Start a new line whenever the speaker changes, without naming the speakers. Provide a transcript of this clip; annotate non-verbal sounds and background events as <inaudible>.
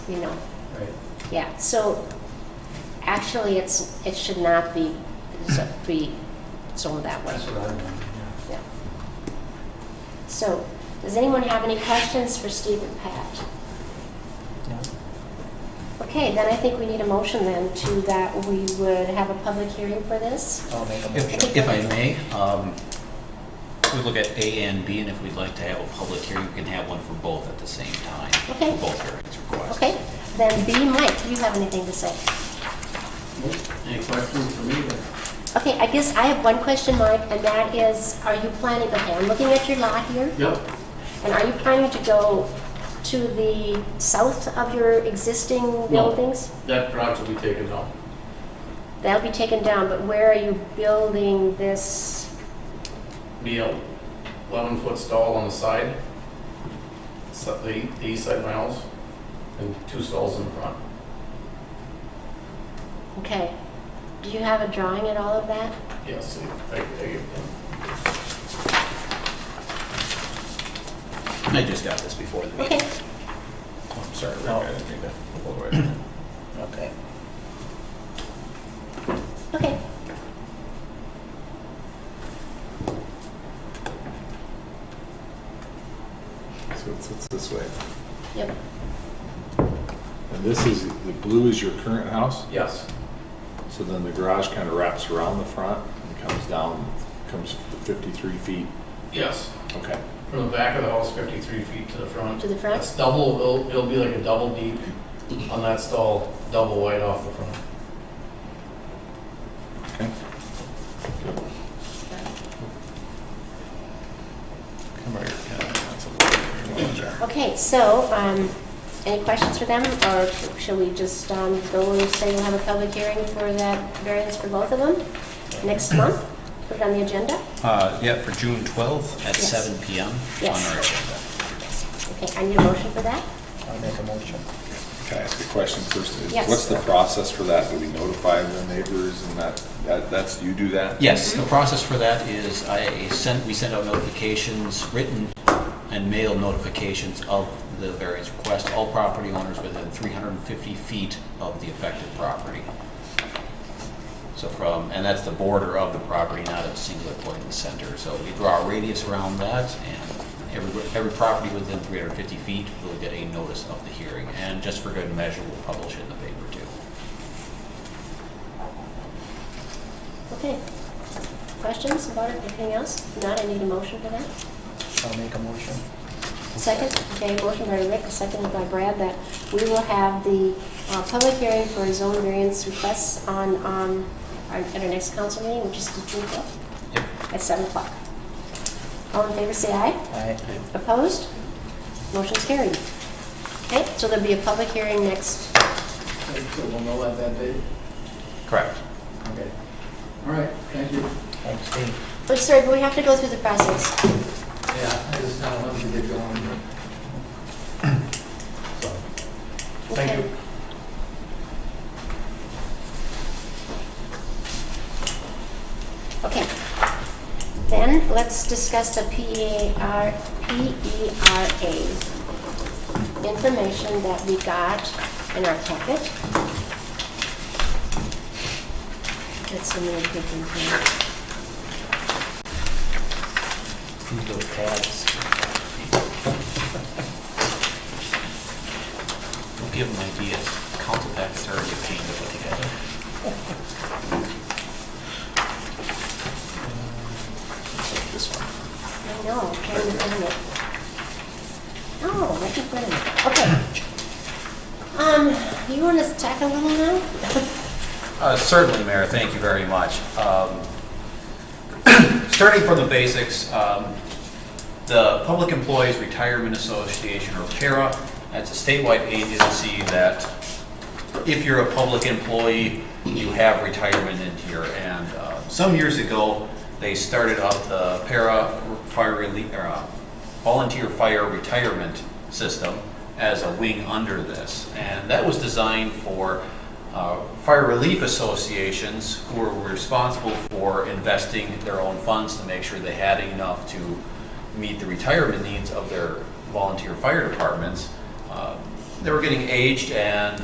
you know,
Right.
yeah, so actually, it's, it should not be, zo- be zoned that way.
That's what I mean, yeah.
Yeah. So, does anyone have any questions for Steve and Pat? Okay, then I think we need a motion then to that we would have a public hearing for this.
I'll make a motion.
If if I may, um, we look at A and B, and if we'd like to have a public hearing, we can have one for both at the same time.
Okay.
for Both hearings requests.
Okay, then B, Mike, do you have anything to say?
Any questions for me? then?
Okay, I guess I have one question, Mike, and that is, are you planning, okay, I'm looking at your lot here,
Yep.
and are you planning to go to the south of your existing buildings?
That garage will be taken down.
That'll be taken down, but where are you building this?
Be a eleven foot stall on the side, so- the the east side of my house, and two stalls in the front.
Okay, do you have a drawing and all of that?
Yes, I, I,
I just got this before the
Okay,
meeting. I'm sorry, Rick,
No.
I didn't mean to pull the right one.
Okay.
okay.
So it's, it's this way.
Yep,
And this is, the blue is your current house,
yes,
so then the garage kind of wraps around the front and comes down, comes 53 feet.
yes.
Okay.
From the back of the house, fifty-three feet to the front.
to the front?
That's double, it'll, it'll be like a double deep on that stall, double wide off the front.
Okay. Come right here, Ken. That's a little- you wanna-
Okay, so, um, any questions for them, or shall we just, um, go and say we'll have a public hearing for that variance for both of them next month? Put it on the agenda?
Uh, Yeah, for June 12th at
Yes.
seven PM on
Yes.
our agenda.
Okay, I need a motion for that?
I'll make a motion.
Can I ask a question first? Is-
Yes.
What's the process for that? Do we notify the neighbors and that, that, that's, you do that?
Yes, the process for that is I sent, we send out notifications, written and mail notifications of the variance request, all property owners within 350 feet of the affected property. So from, and that's the border of the property, not a singular point in the center. So we draw a radius around that, and every, every property within 350 feet will get a notice of the hearing. And just for good measure, we'll publish it in the paper too.
Okay. Questions about it, anything else? If Not, I need a motion for that?
I'll make a motion.
Second, okay, motion by Rick, seconded by Brad, that we will have the uh, public hearing for zone variance requests on, um, our- at our next council meeting, which is the June 12th.
Yep.
at 7 o'clock. All in favor, say aye.
Aye.
Opposed? Motion's carried. Okay, so there'll be a public hearing next,
So we'll know at that date?
Correct.
Okay. All right, thank you.
Thanks, Steve.
oh, sorry, but we have to go through the process.
Yeah, I just kind of wanted to get going.
Thank
Okay.
you.
Okay. Then, let's discuss the E PER, PERA E information that we got in our packet. That's the main thing here.
These little tabs.
Give them ideas. Council packs are already a pain to put together.
This one.
I know, I'm trying to find it. Oh, right in front of me. Okay. Um, you want to talk a little now?
Uh, Certainly, Mayor, thank you very much. Um, <coughs> Starting from the basics, um, the Public Employees Retirement Association, or PARA, that's a statewide agency that if you're a public employee, you have retirement in here. And uh, some years ago, they started up the para fire relief, or uh, volunteer fire retirement system as a wing under this. And that was designed for uh, fire relief associations who were responsible for investing their own funds to make sure they had enough to meet the retirement needs of their volunteer fire departments. Uh, they were getting aged and